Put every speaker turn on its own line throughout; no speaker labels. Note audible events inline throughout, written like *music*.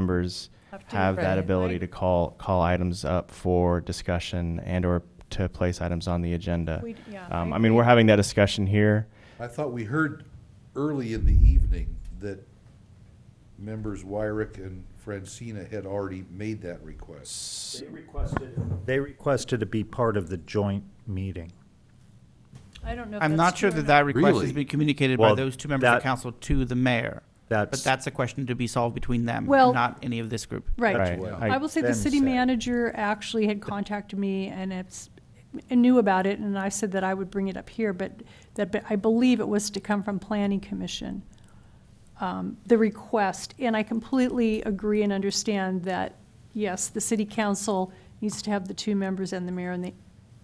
members
Have to,
have that
right,
ability
right.
to call, call items up for discussion and/or to place items on the agenda.
We d- yeah,
Um,
I
I mean, we're
agree.
having that discussion here.
I thought we heard early in the evening that members Wyrick and Francina had already made that request.
They requested. They requested to be part of the joint meeting.
I don't know if
I'm
that's
not sure
true or
that that request
Really?
has been communicated by
Well,
those two members of
that-
council to the mayor. But
That's,
that's a question to be solved between them,
Well-
not any of this group.
Right.
Right.
I will say the
Then
city
said.
manager actually had contacted me and it's, and knew about it, and I said that I would bring it up here, but that, but I believe it was to come from planning commission, um, the request. And I completely agree and understand that, yes, the city council needs to have the two members and the mayor, and they,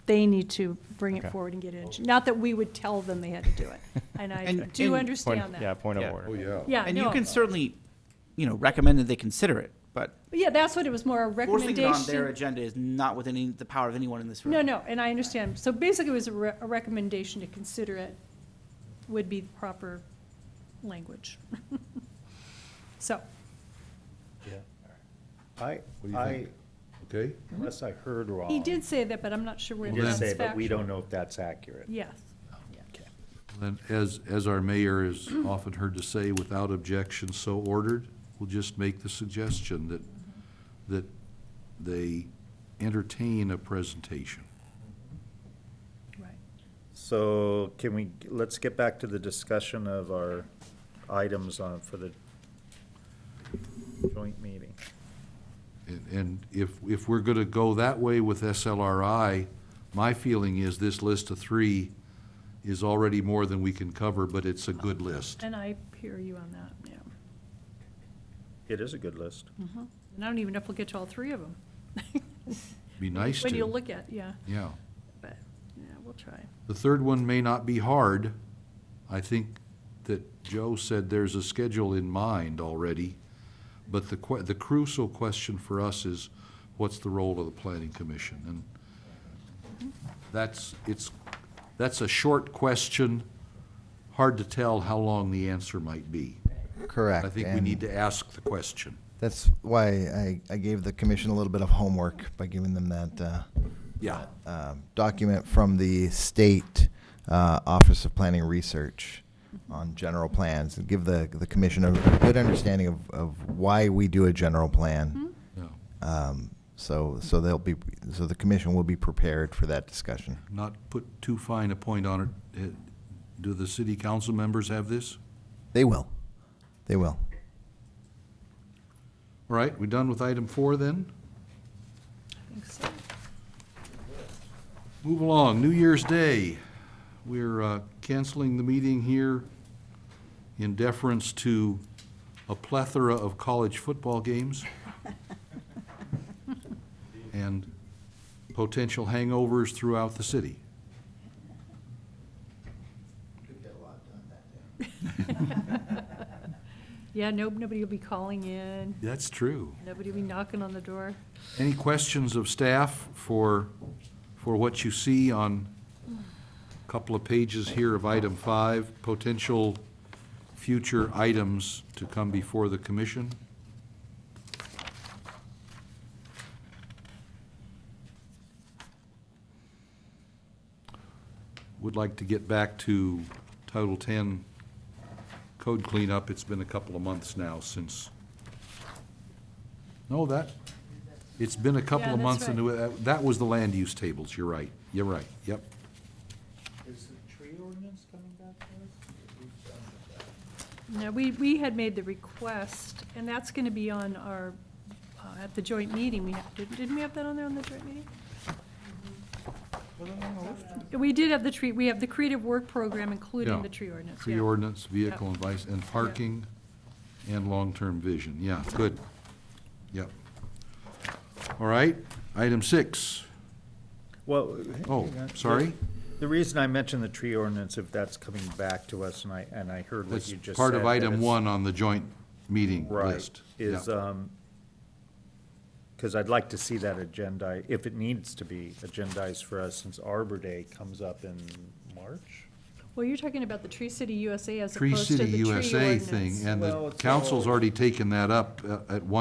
they need to bring it
Okay.
forward and get it. Not that we would tell them they had to do it, and I
And-
do
and-
Point-
understand
Yeah,
that.
point
Yeah.
of order.
Oh, yeah.
Yeah,
And you
no.
can certainly, you know, recommend that they consider it, but
But yeah, that's what it was, more a
forcing
recommendation.
it on their agenda is not within any- the power of anyone in this room.
No, no, and I understand. So basically, it was a re- a recommendation to consider it would be the proper language. *laughs* So,
I,
What do you
I,
think? Okay?
unless I heard wrong.
he did say that, but I'm not sure where
He
that's
did say,
factual.
but we don't know if that's accurate.
Yes.
And as, as our mayor is often heard to say, without objection, so ordered, we'll just make the suggestion that, that they entertain a presentation.
Right.
So can we, let's get back to the discussion of our items on, for the joint meeting.
And- And if, if we're going to go that way with SLRI, my feeling is this list of three is already more than we can cover, but it's a good list.
And I hear you on that, yeah.
It is a good list.
And I don't even know if we'll get to all three of them.
*laughs* Be nice
When you
to,
look at, yeah,
yeah.
but, yeah, we'll
*laughs*
try.
The third one may not be hard. I think that Joe said there's a schedule in mind already, but the, que- the crucial question for us is, what's the role of the planning commission? And that's, it's, that's a short question, hard to tell how long the answer might be.
Correct.
I think we
and
need to ask the question.
That's why I, I gave the commission a little bit of homework by giving them that uh,
Yeah.
uh, document from the state uh, Office of Planning Research on general plans and give the, the commission a good understanding of, of why we do a general plan.
Yeah.
Um, so so they'll be so the commission will be prepared for that discussion.
Not put too fine a point on it. Uh, Do the city council members have this?
They will. They will.
All right, we done with item four then?
I think so.
Move along, New Year's Day. We're uh, canceling the meeting here in deference to a plethora of college football *laughs* games and potential hangovers throughout the city.
Yeah, no, nobody will be calling in,
That's true.
nobody will be knocking on the door.
Any questions of staff for, for what you see on a couple of pages here of item five, potential future items to come before the commission? Would like to get back to Title 10 code cleanup. It's been a couple of months now since, no, that, it's been a couple
Yeah,
of
that's
months.
right.
into that- That was the land use tables. You're right. You're right. Yep.
Is the tree ordinance coming back to us?
No, we, we had made the request, and that's going to be on our, uh, at the joint meeting, we, had- didn't didn't we have that on there on the joint meeting? We did have the tree, we have the creative work program, including
Yeah.
the tree ordinance,
Tree
yeah.
ordinance, vehicle and vice, and parking, and long-term vision, yeah, good. Yep. All right, item six.
Well.
Oh,
hang on.
sorry,
The reason I mentioned the tree ordinance, if that's coming back to us, and I, and I heard what
that's
you just said.
part of
that
item
it's-
one on the joint meeting
Right,
list.
is,
Yeah.
um, because I'd like to see that agenda, if it needs to be agendized for us, since Arbor Day comes up in March?
Well, you're talking about the Tree City USA as
Tree
opposed to the
City
tree ordinance.
USA thing, and
Well,
the
it's
council's
all-
already taken that up uh, at one.